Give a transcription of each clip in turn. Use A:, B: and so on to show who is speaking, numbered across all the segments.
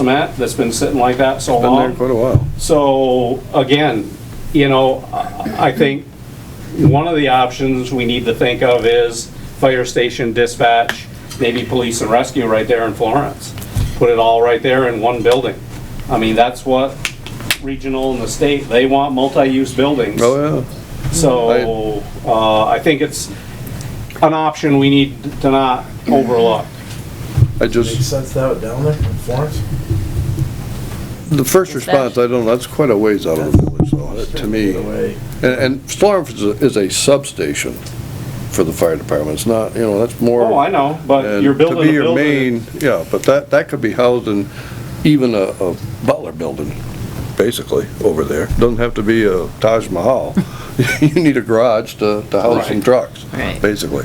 A: cement that's been sitting like that so
B: Been there
A: long.
B: quite a while.
A: So again, you know, I I think one of the options we need to think of is fire station dispatch, maybe police and rescue right there in Florence. Put it all right there in one building. I mean, that's what regional and the state, they want multi-use buildings.
B: Oh,
A: So, uh, I think it's an option we need to not overlook.
B: yeah. I
C: Makes
B: just,
C: sense to have it down there in Florence.
B: the first response, I don't, know. that's quite a ways out of the village, though, that- to me.
C: Straight away.
B: And, and Florence is a- is a substation for the fire department. It's not, you know, that's more.
A: Oh, I know, but
B: and
A: you're building a
B: To be your
A: building.
B: main, yeah, but that, that could be housed in even a, a Butler building, basically, over there. Doesn't have to be a Taj Mahal. You need a garage to, to house some
A: Right.
B: trucks,
D: Right.
B: basically.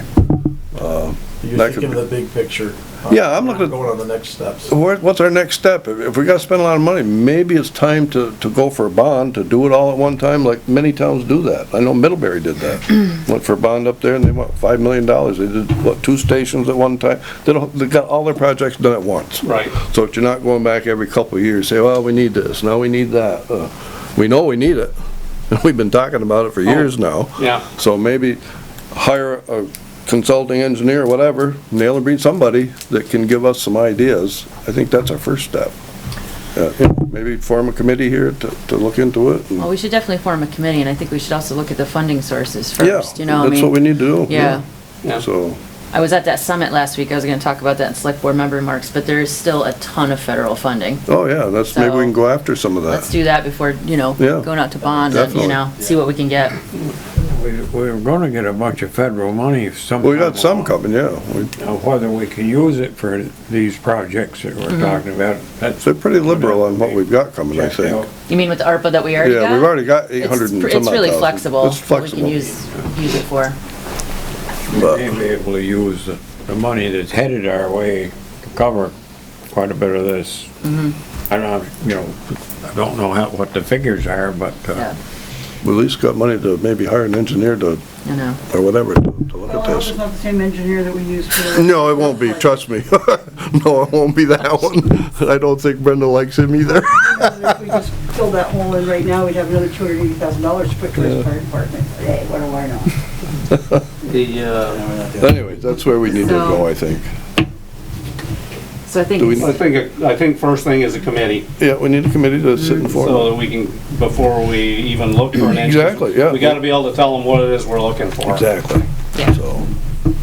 C: You're
B: That could
C: thinking
B: be-
C: of the big picture.
B: Yeah, I'm looking at-
C: Going on the next steps.
B: Where- What's our next step? If- If we gotta spend a lot of money, maybe it's time to, to go for a bond, to do it all at one time, like many towns do that. I know Middlebury did that. Went for a bond up there and they want five million dollars. They did, what, two stations at one time? They don't, they got all their projects done at once.
A: Right.
B: So that you're not going back every couple of years, say, well, we need this, now we need that. Uh, We know we need it. We've been talking about it for years now.
A: Yeah.
B: So maybe hire a consulting engineer, whatever, nail and breed somebody that can give us some ideas. I think that's our first step. Uh, yeah, Maybe form a committee here to, to look into it. and-
D: Well, we should definitely form a committee, and I think we should also look at the funding sources
B: Yeah,
D: first, you know, I mean.
B: That's what we need to do.
D: Yeah,
A: Yeah.
B: So,
D: I was at that summit last week, I was gonna talk about that in select board member remarks, but there is still a ton of federal funding.
B: oh, yeah, that's, maybe we can
D: So-
B: go after some of
D: Let's
B: that.
D: do that before, you know,
B: Yeah,
D: going out to bond, and, you
B: definitely.
D: know, see what we can get.
E: We- We're gonna get a bunch of federal money sometime.
B: We got some coming, yeah. We-
E: Now, whether we can use it for these projects that we're talking about, that's.
B: They're pretty liberal on what we've got coming, I
E: Check it out.
B: think.
D: You mean with the ARPA that we already got?
B: Yeah, we've already got eight
D: It's
B: hundred and
D: pr-
B: some odd
D: It's really
B: thousand.
D: flexible,
B: It's
D: what we can
B: flexible.
D: use, use it for.
E: We
B: Uh,
E: may be able to use the, the money that's headed our way to cover quite a bit of this. I don't, know, you know, I don't know how, what the figures are, but, uh,
D: Yeah,
B: We at least got money to maybe hire an engineer to,
D: I know.
B: or whatever, to to look
F: Well,
B: at
F: I hope it's
B: this.
F: not the same engineer that we used for.
B: No, it won't be, trust me. No, it won't be that one. I don't think Brenda likes him either.
F: If we just filled that hole in right now, we'd have another two hundred eighty thousand dollars to put towards fire department. But Hey, what do I know?
A: The, uh,
B: Anyways, that's where we need to go, I think.
D: So I think,
B: Do we
A: I
D: it's-
A: think, I think first thing is a committee,
B: Yeah, we need a committee to sit and
A: so
B: form.
A: that we can, before we even look for an engineer.
B: Exactly, yeah.
A: We gotta be able to tell them what it is we're looking for.
B: Exactly.
D: Yeah.
B: So,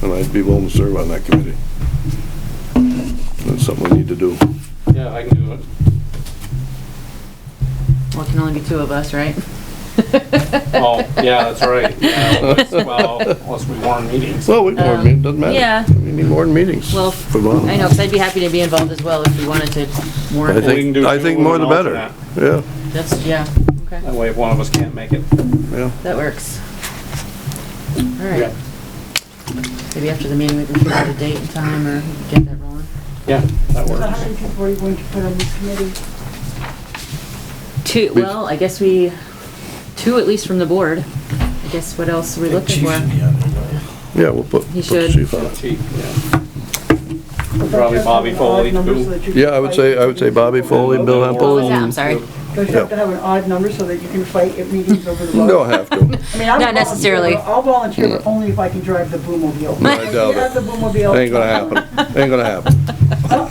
B: and I'd be willing to serve on that committee. That's something we need to do.
A: Yeah, I can do it.
D: well, it can only be two of us, right?
A: Oh, yeah, that's right. Yeah, that's- Well, unless we warn meetings.
B: Well, we can, warn meetings, doesn't matter.
D: Um, yeah.
B: We need more meetings.
D: Well,
B: For Vermont.
D: I know, 'cause I'd be happy to be involved as well if we wanted to warn
B: I
D: it.
A: We can
B: think,
A: do
B: I
A: two
B: think
A: with
B: more
A: an
B: the better.
A: alternate.
B: Yeah,
D: That's, yeah, okay.
A: That way if one of us can't make it.
B: yeah.
D: That works. All right. Maybe after the meeting, we can figure out a date and time or get that rolling.
A: Yeah, that
F: So how
A: works.
F: many people are you going to put on this committee?
D: Two, well, I guess we, two at least from the board. I guess what else are we looking
C: Chief's in
D: for?
C: the end, you know.
B: Yeah, we'll put, put the
D: You should.
B: chief on it.
A: Chief, yeah. Probably Bobby Foley, too.
B: Yeah, I would say, I would say Bobby Foley, Bill
D: What
B: Hempel,
D: was that? I'm
B: and,
D: sorry.
F: Don't you have to have an odd number so that you can fight at meetings over the vote?
B: don't have to.
F: I mean, I'll
D: Not
F: volunteer,
D: necessarily.
F: but I'll volunteer, but only if I can drive the boomobile.
B: No, I
F: If
B: doubt
F: you have
B: it.
F: the boomobile.
B: Ain't gonna happen, ain't gonna happen.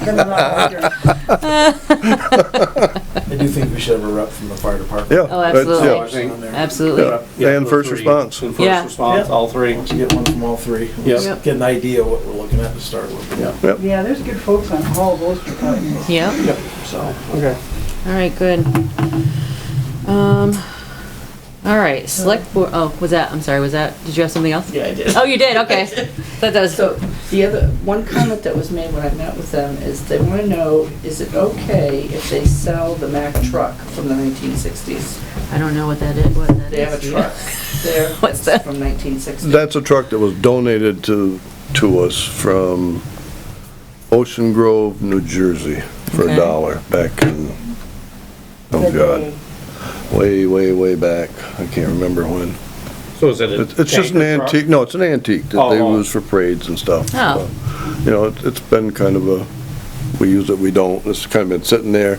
F: then I'm not volunteering.
C: I do think we should have a rep from the fire department.
B: Yeah.
D: Oh,
B: that's-
D: absolutely.
B: yeah.
A: I think-
D: Absolutely.
A: yeah,
B: And
A: the
B: first
A: three.
B: response.
A: And
D: Yeah.
A: first response, all three.
C: Once you get one from all three, we'll
A: Yep.
C: just get an idea what we're looking at to start with. Yeah.
F: Yeah, there's good folks on all those departments.
D: Yep.
A: Yep, so, okay.
D: All right, good. Um, all right, select board, oh, was that, I'm sorry, was that, did you have something else?
G: Yeah, I did.
D: Oh, you did, okay. Thought that was,
G: So the other, one comment that was made when I met with them is they want to know, is it okay if they sell the Mack truck from the 1960s?
D: I don't know what that is, what that is.
G: They have a truck there.
D: What's that?
G: From 1960.
B: That's a truck that was donated to, to us from Ocean Grove, New Jersey, for a
D: Okay.
B: dollar back in, oh God, way, way, way back. I can't remember when.
A: So is it a
B: It's, it's just an
A: tanker truck?
B: antique, no, it's an antique that they
A: Oh, oh.
B: use for parades and stuff.
D: Oh.
B: You know, it- it's been kind of a we use it, we don't. It's kind of been sitting there.